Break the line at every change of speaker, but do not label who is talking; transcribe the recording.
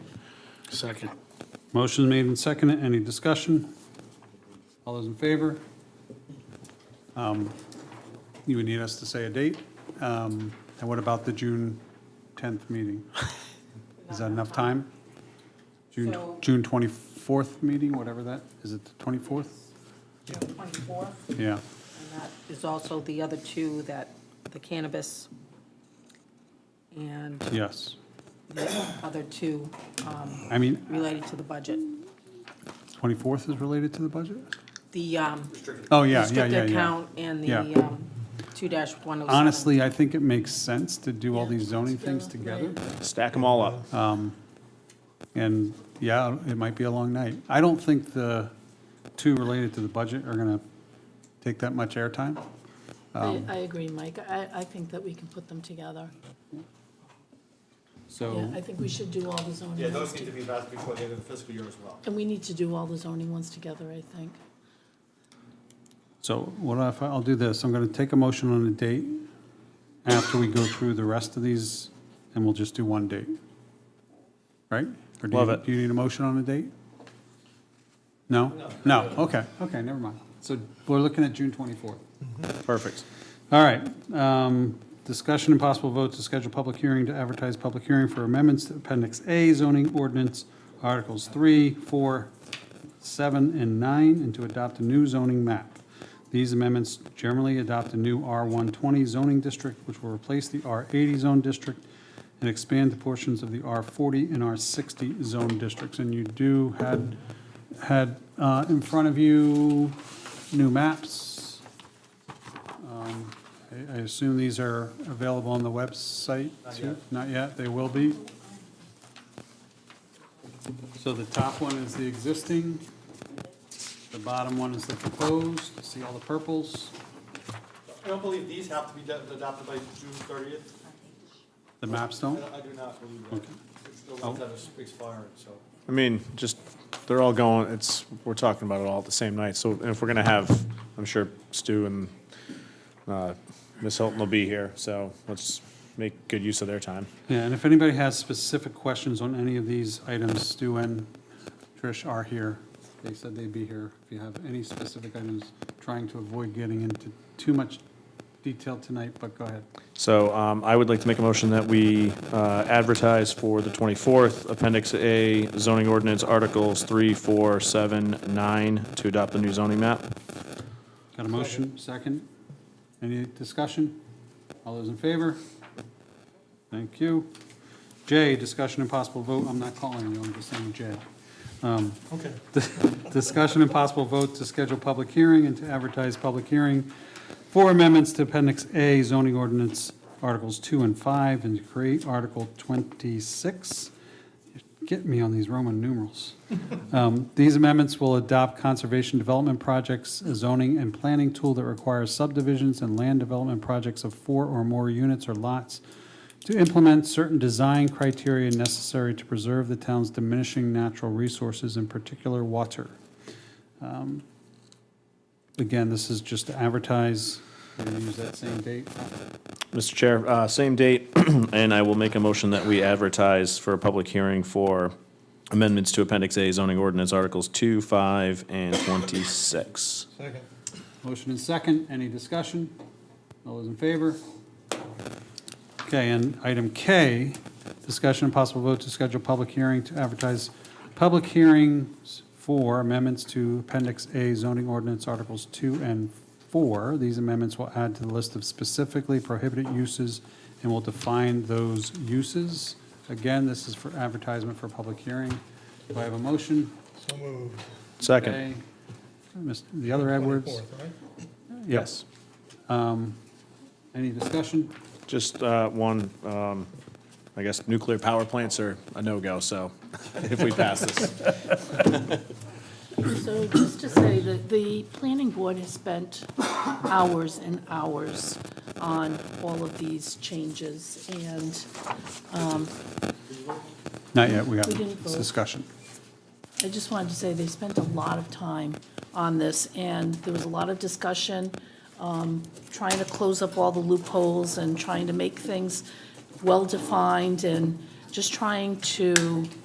Second.
Motion made and seconded. Any discussion? All those in favor? Um, You would need us to say a date. Um, And what about the June 10th meeting? Is that enough time? June,
So-
June 24th meeting, whatever that, is it the 24th?
June 24th,
Yeah.
and that is also the other two that, the cannabis and
Yes.
the other two um,
I mean,
related to the budget.
24th is related to the budget?
The um,
Oh, yeah, yeah, yeah,
restricted
yeah.
account and the
Yeah.
um, 2-107.
Honestly, I think it makes sense to do all
Yeah.
these zoning things together.
Stack them all up. Uh,
And yeah, it might be a long night. I don't think the two related to the budget are going to take that much airtime.
I, I agree, Mike. I, I think that we can put them together. Yeah,
So,
I think we should do all the zoning.
Yeah,
ones
those need
to-
to be passed before the end of the fiscal year as well.
And we need to do all the zoning ones together, I think.
so what if, I- I'll do this, I'm going to take a motion on a date after we go through the rest of these, and we'll just do one date. Right? Or do you-
Love it.
Do you need a motion on a date? No? No, okay, okay, never mind. So we're looking at June 24th.
Perfect.
All right, um, discussion and possible vote to schedule public hearing to advertise public hearing for amendments to Appendix A zoning ordinance, Articles 3, 4, 7, and 9, and to adopt a new zoning map. These amendments generally adopt a new R120 zoning district, which will replace the R80 zone district and expand the portions of the R40 and R60 zone districts. And you do had, had uh, in front of you new maps. I- I assume these are available on the website? too? Not yet, they will be. So the top one is the existing, the bottom one is the proposed, see all the purples?
I don't believe these have to be ad- adopted by June thirtieth.
The maps don't?
I I do not believe that. It's the ones that are expiring, so.
I mean, just, they're all going, it's, we're talking about it all at the same night. So if we're going to have, I'm sure Stu and uh, Ms. Hilton will be here, so let's make good use of their time.
Yeah, and if anybody has specific questions on any of these items, Stu and Trish are here. They said they'd be here. If you have any specific items, trying to avoid getting into too much detail tonight, but go ahead.
So um, I would like to make a motion that we uh, advertise for the 24th Appendix A zoning ordinance Articles 3, 4, 7, 9 to adopt the new zoning map.
Got a motion, second? Any discussion? All those in favor? Thank you. J, discussion and possible vote, I'm not calling you, I'm just saying J. Um,
Okay.
Discussion and possible vote to schedule public hearing and to advertise public hearing for amendments to Appendix A zoning ordinance, Articles 2 and 5, and to create Article 26. Get me on these Roman numerals. Um, These amendments will adopt conservation development projects, a zoning and planning tool that requires subdivisions and land development projects of four or more units or lots to implement certain design criteria necessary to preserve the town's diminishing natural resources, in particular water. Um, Again, this is just to advertise, we're going to use that same date.
Mr. Chair, uh, same date, and I will make a motion that we advertise for a public hearing for amendments to Appendix A zoning ordinance Articles 2, 5, and 26.
Second.
Motion and second, any discussion? All those in favor? Okay, and item K, discussion and possible vote to schedule public hearing to advertise public hearings for amendments to Appendix A zoning ordinance Articles 2 and 4. These amendments will add to the list of specifically prohibited uses and will define those uses. Again, this is for advertisement for public hearing. Do I have a motion?
Second.
Okay. Mr. The other Edwards?
Yes.
Um, Any discussion?
Just uh, one, um, I guess nuclear power plants are a no-go, so if we pass this.
So just to say that the planning board has spent hours and hours on all of these changes, and
Not yet, we
We
haven't.
didn't
It's
vote.
discussion.
I just wanted to say, they spent a lot of time on this, and there was a lot of discussion, um, trying to close up all the loopholes and trying to make things well-defined and just trying to